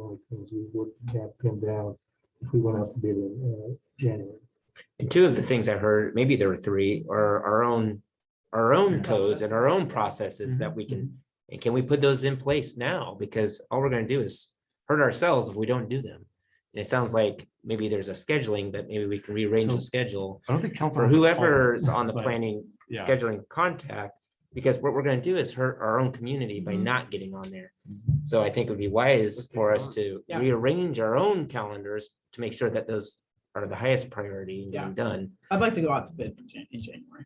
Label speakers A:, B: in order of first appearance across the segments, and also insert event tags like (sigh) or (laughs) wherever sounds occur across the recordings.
A: only things we would have pinned down if we went out to bid in uh, January.
B: And two of the things I heard, maybe there were three, are our own, our own codes and our own processes that we can,
C: Mm-hmm.
B: and can we put those in place now? Because all we're gonna do is hurt ourselves if we don't do them. And it sounds like maybe there's a scheduling, but maybe we can rearrange
C: So-
B: the schedule
C: I don't think council.
B: for
C: has a
B: whoever's on the
C: but-
B: planning,
C: Yeah.
B: scheduling contact. Because what we're gonna do is hurt our own community by
C: Mm-hmm.
B: not getting on there. So I think it would be wise for us to
D: Yeah.
B: rearrange our own calendars to make sure that those are the highest priority and getting done.
D: I'd like to go out to bid for Jan- in January.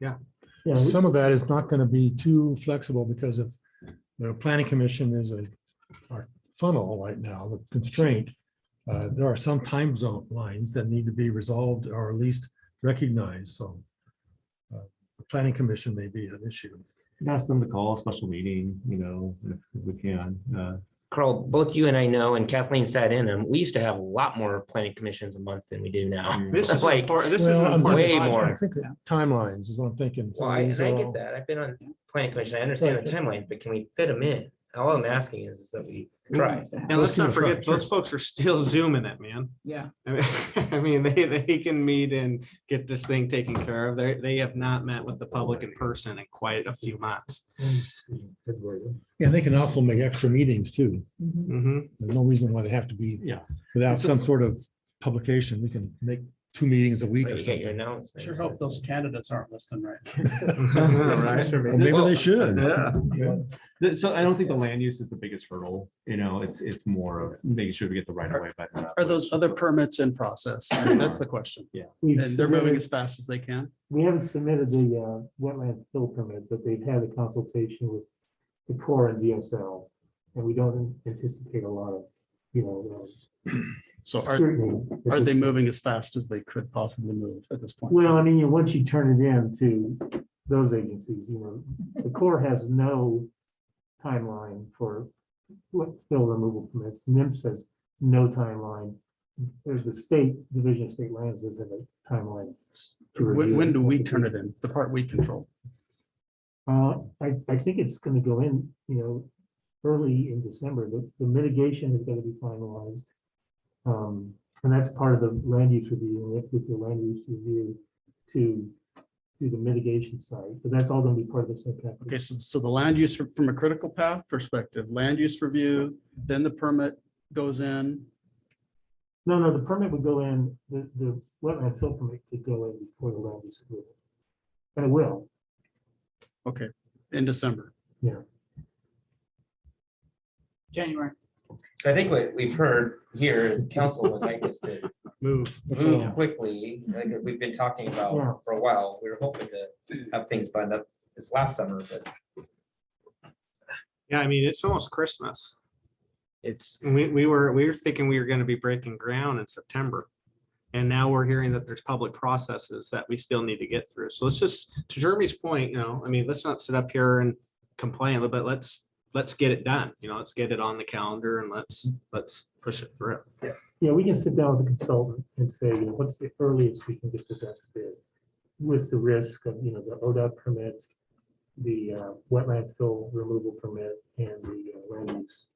A: Yeah, we-
E: Some of that is not going to be too flexible because if the planning commission is a our funnel right now, the constraint. uh, There are some time zone lines that need to be resolved or at least recognized, so. uh, the Planning commission may be an issue.
C: Ask them to call a special meeting, you know, if we can. uh,
B: Carl, both you and I know, and Kathleen sat in them, we used to have a lot more planning commissions a month than we do now.
C: This is
B: (laughs) Like,
C: important, this is
E: Well,
C: an
E: I'm
C: important
B: Way
C: project.
B: more.
E: I think that Timelines is what I'm thinking.
B: well, I,
E: These
B: and I
E: are
B: get
E: all-
B: that, I've been on planning commission, I understand the timeline, but can we fit them in? All I'm asking is is that we try.
C: And
E: Let's
C: let's
E: give
C: not
E: it a try,
C: forget, those
E: sure.
C: folks are still zooming it, man. (laughs)
D: Yeah,
C: I mean- I mean, they, they can meet and get this thing taken care of. They, they have not met with the public in person in quite a few months.
A: February.
E: Yeah, they can also make extra meetings too.
C: (laughs)
D: Mhm.
C: Mhm.
E: There's no reason why they have to be.
C: Yeah.
E: Without some sort of publication, we can make two meetings a week or
B: You get your
E: something.
B: announcements.
D: Sure hope those candidates aren't listening right.
E: Or maybe
C: Well,
E: they should.
C: (laughs) Yeah.
F: Th- So I don't think the land use is the biggest hurdle, you know, it's, it's more of making sure we get the right of way. uh. by the-
D: Are those other permits in process? I mean, That's the question.
A: We've
D: And they're moving
A: submitted-
D: as fast as they can.
A: We haven't submitted the uh, wetland fill permit, but they've had a consultation with the Corps and DSL. And we don't anticipate a lot of, you know. uh,
D: So are,
A: scrutiny at
D: are
A: this
D: they moving as fast as they could possibly move at this point?
A: Well, I mean, you- once you turn it in to those agencies, you know, the Corps has no timeline for what fill removal permits. NIMS has no timeline. There's the state, Division of State Lands doesn't have a timeline. to
D: When,
A: review
D: when
A: it.
D: do we turn it in? The part we control.
A: Uh, I, I think it's gonna go in, you know, early in December. The, the mitigation is gonna be finalized. Um, and that's part of the land use review, and we have to get the land use review to do the mitigation side, but that's all gonna be part of the same package.
D: Okay, so, so the land use from, from a critical path perspective, land use review, then the permit goes in.
A: No, no, the permit would go in, the, the wetland fill permit could go in before the land use approval. And it will,
D: Okay, in December.
G: January.
B: I think what we've heard here, council would like us to
D: Move.
E: uh,
B: move quickly, like we've been talking
A: Yeah.
B: about for a while. We were hoping to have things by the, this last summer, but
C: Yeah, I mean, it's almost Christmas.
B: it's,
C: And we, we were, we were thinking we were gonna be breaking ground in September. And now we're hearing that there's public processes that we still need to get through. So let's just, to Jeremy's point, you know, I mean, let's not sit up here and complain, but let's, let's get it done. You know, let's get it on the calendar and let's, let's push it through.
A: Yeah, we can sit down with the consultant and say, you know, what's the earliest we can get this out to bid? With the risk of, you know, the ODOT permit, the uh, wetland fill removal permit and the uh, land use.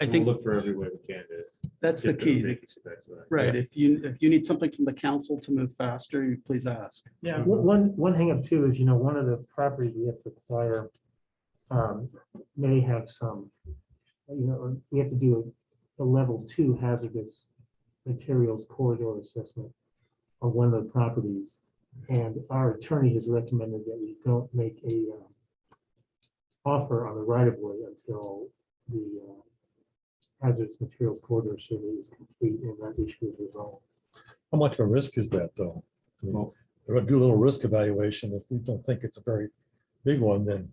D: I
F: We'll
D: think
F: Look for every way we can to.
D: that's the
F: get those
D: key. that-
F: vacancies back to that.
D: Right, if you, if you need something from the council to move faster, you please ask.
A: Yeah. One, one hangup too is, you know, one of the properties we have to acquire um, may have some, you know, we have to do a a level two hazardous materials corridor assessment on one of the properties. And our attorney has recommended that we don't make a um, offer on the right of way until the uh, hazardous materials corridor survey is complete and that issue is resolved.
E: How much of a risk is that, though? I mean, We're gonna do a little risk evaluation. If we don't think it's a very big one, then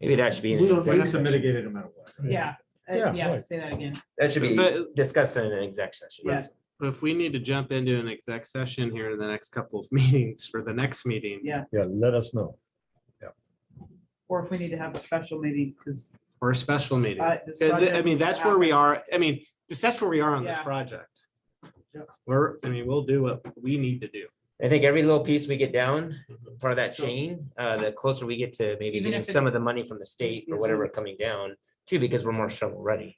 B: maybe that should be. in
A: We
B: an
A: don't
F: But
B: executive
F: it's a
B: session.
F: mitigated amount of what? right?
G: Yeah.
E: Yeah,
G: Uh, Yeah,
E: right.
G: say that again.
B: That should be
C: But-
B: discussed in an exec session.
G: Yes,
C: But if we need to jump into an exec session here in the next couple of (laughs) meetings for the next meeting.
G: Yeah.
E: yeah, let us know.
G: or if we need to have a special meeting, because.
C: Or a special meeting.
G: Uh, this
C: Uh, th- I
G: project
C: mean,
G: needs to
C: that's where we
G: happen.
C: are. I mean, just that's where we are on this
G: Yeah.
C: project.
G: Yep.
C: We're, I mean, we'll do what we need to do.
B: I think every little piece we get down, part of that chain, uh, the closer we get to maybe
G: Even
B: getting
G: if it-
B: some of the money from the state or
G: Yes,
B: whatever coming down, too, because we're more shovel ready.